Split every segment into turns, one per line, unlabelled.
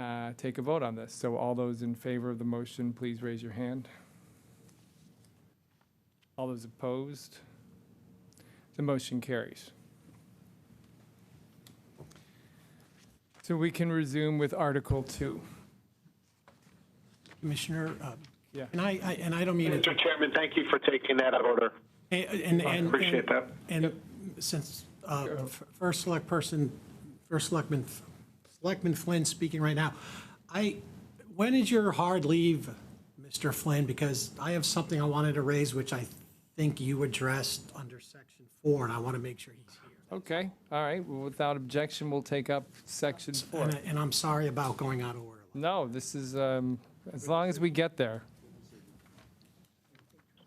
uh, take a vote on this. So all those in favor of the motion, please raise your hand. All those opposed? The motion carries. So we can resume with Article 2.
Commissioner, uh,
Yeah.
and I, I- and I don't mean, it-
Mr. Chairman, thank you for taking that out of order.
and, and. and-
Appreciate that.
And since uh, f- first select person, first selectman, Selectman Flynn speaking right now, I, when is your hard leave, Mr. Flynn? Because I have something I wanted to raise, which I think you addressed under section four, and I want to make sure he's here.
Okay, all right, well, without objection, we'll take up Section 4.
And I- And I'm sorry about going out of order.
No, this is, um, as long as we get there.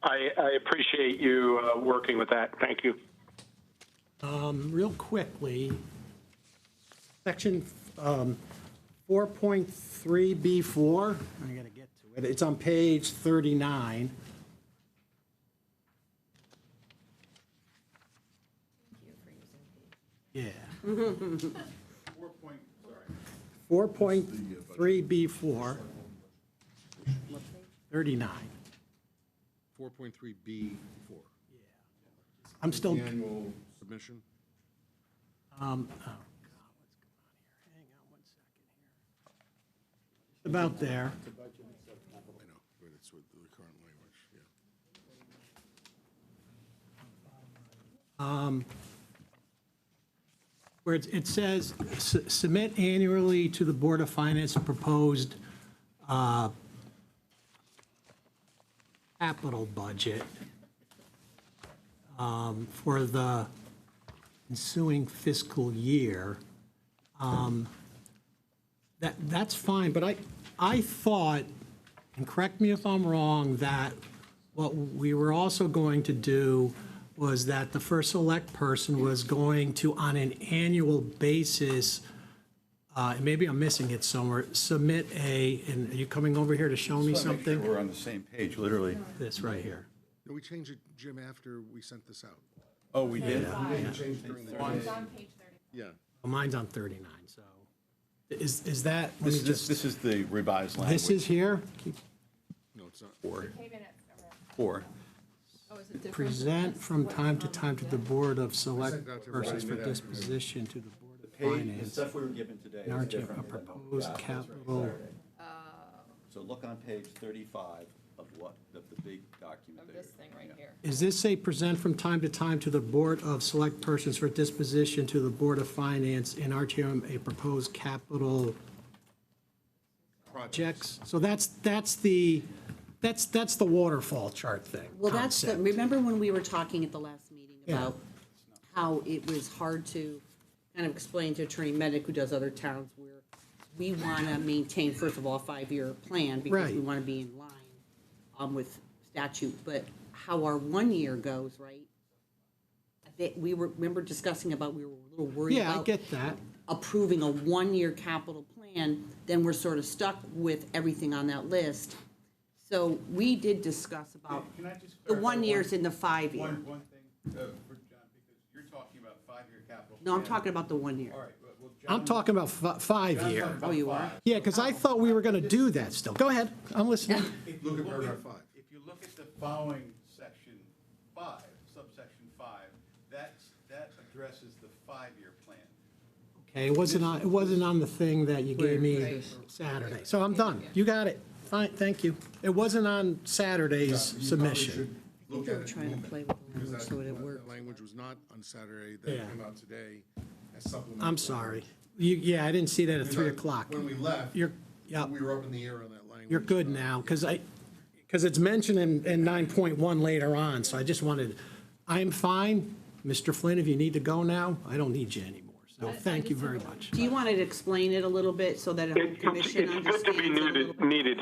I, I appreciate you uh, working with that. Thank you.
real quickly, section um, 4.3B4, I'm going to get to it, it's on page 39. Yeah. 4.3B4, 39.
4.3B4,
I'm still,
annual submission.
Um, oh, God, what's going on here? Hang on one second here. About there.
I know, but it's with the current language, yeah.
Um, where it's- it says, "S- submit annually to the Board of Finance a proposed uh, capital budget um, for the ensuing fiscal year. Um, That, that's fine, but I, I thought, and correct me if I'm wrong, that what we were also going to do was that the first select person was going to, on an annual basis, uh, and maybe I'm missing it somewhere, submit a, and are you coming over here to show me
Make sure
something?
We're on the same page, literally.
This right here.
No, we changed it, Jim, after we sent this out.
Oh, we did?
We changed during the. Yeah.
Well, Mine's on 39, so. Is, is that, let me
This, this,
just,
this is the revised language.
this is here?
No, it's not.
Four. Four.
Present from time to time to the Board of Select
that to
persons for
everybody.
disposition to the Board of
Page, the
Finance.
stuff we were given today is
Narrative
different. "Oh,
of
than what we
proposed
got.
capital.
So look on page thirty-five of what, of the big document there.
This thing right here.
Is this say present from time to time to the Board of Select persons for disposition to the Board of Finance in RTM a proposed capital projects? So that's, that's the, that's, that's the waterfall chart thing.
Well, that's, the-
concept.
remember when we were talking at the last meeting
Yeah.
about how it was hard to kind of explain to Attorney Medic, who does other towns, where we want to maintain, first of all, a five-year plan because we
Right.
want to be in line um, with statute, but how our one year goes, right? That we were, remember discussing about, we were a little worried about
Yeah, I get that.
approving a one-year capital plan, then we're sort of stuck with everything on that list. So we did discuss about
Can I just
the
clarify
one
one-
years and the five year.
One, one thing uh, for John, because you're talking about five-year capital.
No, I'm
plan.
talking about the one year.
All right, well, well, John.
I'm talking about fi- five
John's
year.
talking about
Oh, you
five.
are?
Yeah, because I thought we were going to do that still. Go ahead, I'm listening.
If you
Look at
look
paragraph five.
If you look at the following section five, subsection five, that's, that addresses the five-year plan.
Okay, it wasn't on, it wasn't on the thing that you gave me Saturday. So I'm done. You got it. Fine, thank you. It wasn't on Saturday's submission.
Look
they
at
were
it.
trying to
move it,
play with the
because
language
that-
so it
that
worked.
Language was not on Saturday,
Yeah.
that came out today as supplemental.
I'm sorry. You, yeah, I didn't see that at
Because
3
I-
o'clock.
When we left.
You're, yeah,
We were up in the air on that language.
you're good now, because I, because it's mentioned in, in 9.1 later on, so I just wanted, I'm fine. Mr. Flynn, if you need to go now, I don't need you anymore. So thank you very much.
Do you want to explain it a little bit so that a whole
It- It's,
commission
it's good
understands?
to be
it a little
needed,
bit?
needed.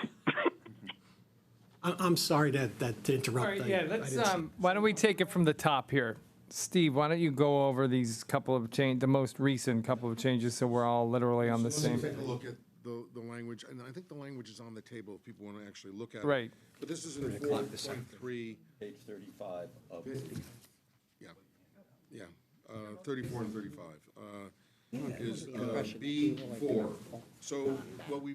I, I'm sorry that, that to interrupt.
All right,
I-
yeah,
I
let's,
didn't see-
um, why don't we take it from the top here? Steve, why don't you go over these couple of change, the most recent couple of changes, so we're all literally on the
Let's
same.
Take a look at the, the language, and I think the language is on the table if people want to actually look at it.
Right.
But this is in four point three,
Page thirty-five of,
yeah, yeah, uh, thirty-four and thirty-five, uh, is, uh, B four. So what we